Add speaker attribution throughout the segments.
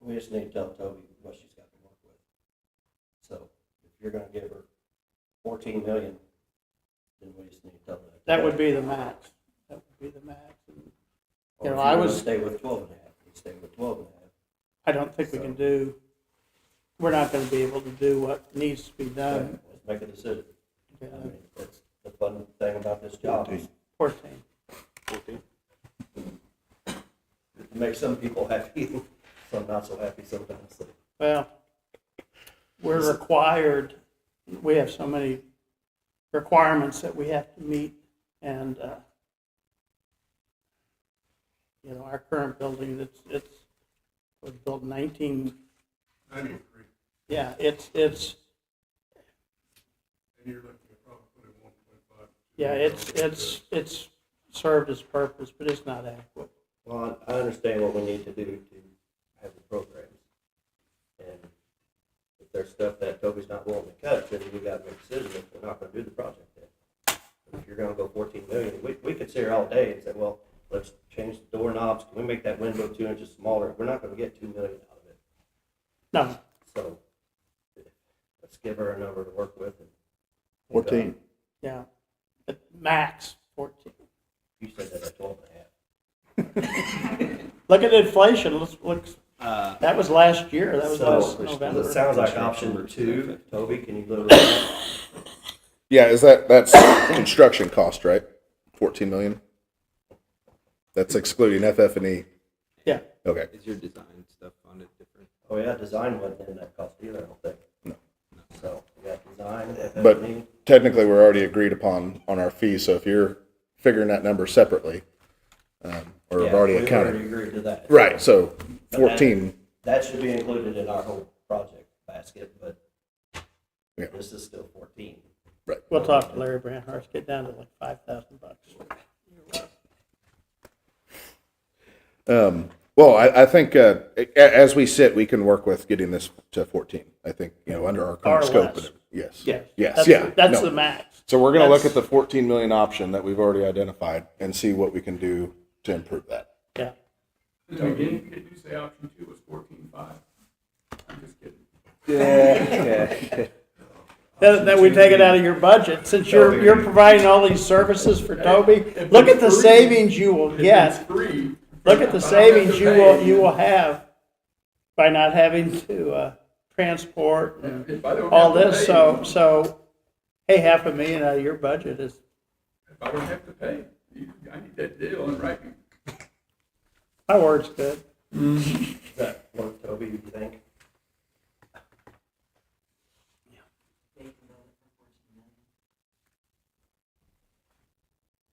Speaker 1: we just need to tell Toby what she's got to work with. So if you're gonna give her fourteen million, then we just need to tell her.
Speaker 2: That would be the max. That would be the max. And
Speaker 1: Or
Speaker 2: you
Speaker 1: if
Speaker 2: know, I
Speaker 1: you're gonna
Speaker 2: was-
Speaker 1: Stay with twelve and a half, you stay with twelve and a half.
Speaker 2: I don't think we can do, we're not going to be able to do what needs to be done.
Speaker 1: Let's make a decision. I
Speaker 2: Yeah,
Speaker 1: mean, that's the fun thing about this job, is
Speaker 2: Fourteen.
Speaker 1: it makes some people happy, some not so happy sometimes. so.
Speaker 2: Well, we're required, we have so many requirements that we have to meet, and, uh, you know, our current building, it's, it's, was built nineteen,
Speaker 3: Ninety-three,
Speaker 2: yeah, it's, it's,
Speaker 3: and you're looking at probably putting one point five.
Speaker 2: yeah, it's, it's, it's served its purpose, but it's not adequate.
Speaker 1: Well, I I understand what we need to do to have the programs. And if there's stuff that Toby's not willing to cut, then we gotta make a decision if we're not gonna do the project then. But If you're gonna go fourteen million, we, we could sit here all day and say, well, let's change the doorknobs, can we make that window two inches smaller? We're not gonna get two million out of it,
Speaker 2: No,
Speaker 1: so let's give her a number to work with. and-
Speaker 4: Fourteen.
Speaker 2: yeah, at max fourteen.
Speaker 1: You said that at twelve and a half.
Speaker 2: Look at inflation, let's, look,
Speaker 5: Uh,
Speaker 2: that was last year, that was
Speaker 1: So,
Speaker 2: last November.
Speaker 1: It sounds like option two, Toby, can you go to that?
Speaker 4: Yeah, is that, that's construction cost, right? Fourteen million? That's excluding FF and E.
Speaker 2: Yeah.
Speaker 4: Okay,
Speaker 5: is your design stuff funded different?
Speaker 1: Oh, yeah, design wasn't in that cost either, I don't think. No. So, we got design,
Speaker 4: But-
Speaker 1: FF&E,
Speaker 4: technically, we're already agreed upon on our fee, so if you're figuring that number separately, um, or
Speaker 1: yeah,
Speaker 4: have already
Speaker 1: we
Speaker 4: accounted.
Speaker 1: agreed to that.
Speaker 4: Right, so
Speaker 1: that-
Speaker 4: fourteen,
Speaker 1: That should be included in our whole project basket, but
Speaker 4: Yeah.
Speaker 1: this is still fourteen.
Speaker 2: We'll talk to Larry Brandhurst, get down to like five thousand bucks.
Speaker 4: um, well, I, I think, uh, a- as we sit, we can work with getting this to fourteen. I think, you know, under our
Speaker 2: Or
Speaker 4: current scope.
Speaker 2: less.
Speaker 4: and- Yes.
Speaker 2: Yes.
Speaker 4: Yes,
Speaker 2: That's-
Speaker 4: yeah,
Speaker 2: That's
Speaker 4: no.
Speaker 2: the max.
Speaker 4: So we're gonna look
Speaker 2: That's-
Speaker 4: at the fourteen million option that we've already identified and see what we can do to improve that.
Speaker 2: Yeah.
Speaker 3: Did you, did you say option two was fourteen-five? I'm just kidding.
Speaker 2: That, that we take it out of your budget, since you're, you're providing all these services for Toby. Look at the savings you will
Speaker 3: Yes.
Speaker 2: get.
Speaker 3: Free.
Speaker 2: Look at the savings you will, you will have by not having to, uh, transport and
Speaker 3: If I don't
Speaker 2: all
Speaker 3: have to
Speaker 2: this.
Speaker 3: pay,
Speaker 2: So, so, hey, half a million out of your budget is,
Speaker 3: If I don't have to pay, you- I need that deal in writing.
Speaker 2: my word's good.
Speaker 1: Does that work, Toby, you think?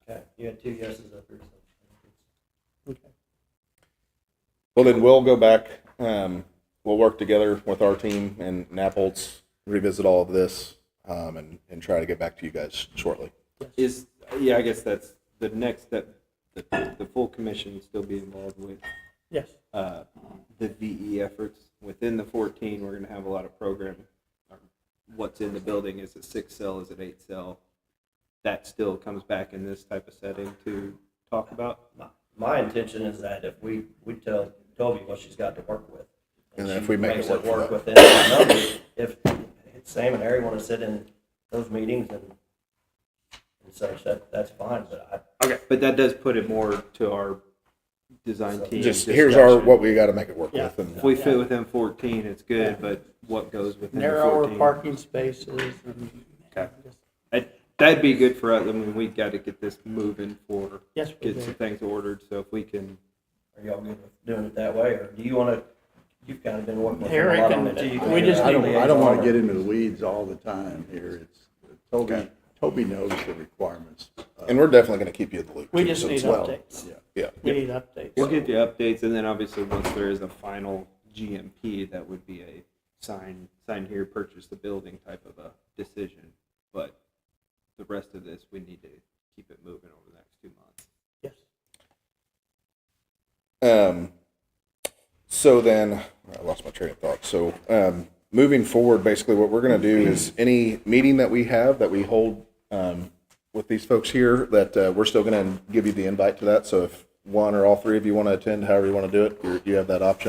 Speaker 1: Okay, you had two yeses up here, so.
Speaker 2: Okay.
Speaker 4: Well, then we'll go back, um, we'll work together with our team and Napolts, revisit all of this, um, and, and try to get back to you guys shortly.
Speaker 5: Is, yeah, I guess that's the next step, the, the full commission still be involved with,
Speaker 2: Yes.
Speaker 5: uh, the VE efforts. Within the fourteen, we're gonna have a lot of programming. Um, What's in the building, is it six cell, is it eight cell? That still comes back in this type of setting to talk about?
Speaker 1: My- My intention is that if we, we tell Toby what she's got to work with.
Speaker 4: And then
Speaker 1: she
Speaker 4: if we make
Speaker 1: makes
Speaker 4: it work for that.
Speaker 1: within the numbers, if Sam and Harry want to sit in those meetings and, and such, that, that's fine, but I,
Speaker 5: Okay. But that does put it more to our design team.
Speaker 4: Just, here's our,
Speaker 5: discussion.
Speaker 4: what we gotta make it work
Speaker 2: Yeah.
Speaker 4: with, and
Speaker 5: If we fit within fourteen, it's good, but what goes within the
Speaker 2: Narrower
Speaker 5: fourteen?
Speaker 2: parking spaces and.
Speaker 5: Okay. That- That'd be good for us, I mean, we gotta get this moving for,
Speaker 2: Yes, we
Speaker 5: get
Speaker 2: do.
Speaker 5: some things ordered, so if we can,
Speaker 1: Are y'all good with doing it that way, or do you wanna, you've kinda been working with him a
Speaker 2: Eric
Speaker 1: lot on
Speaker 2: and-
Speaker 1: it, too. You can
Speaker 2: we
Speaker 1: get
Speaker 2: just
Speaker 1: a
Speaker 6: I don't, I don't want
Speaker 1: liaison.
Speaker 6: to get into the weeds all the time here. It's, Toby, Toby knows the requirements. of-
Speaker 4: and we're definitely gonna keep you in the loop.
Speaker 2: We
Speaker 4: too,
Speaker 2: just
Speaker 4: so
Speaker 2: need
Speaker 4: it's well-
Speaker 2: updates.
Speaker 4: Yeah,
Speaker 2: We need updates.
Speaker 5: we'll give you updates, and then obviously, once there is a final GMP, that would be a sign, sign here, purchase the building type of a decision, but the rest of this, we need to keep it moving over the next two months.
Speaker 2: Yes.
Speaker 4: Um, so then, I lost my train of thought. So um, moving forward, basically, what we're going to do is any meeting that we have that we hold um, with these folks here, that uh, we're still going to give you the invite to that. So if one or all three of you want to attend, however you want to do it, you're, you have that option.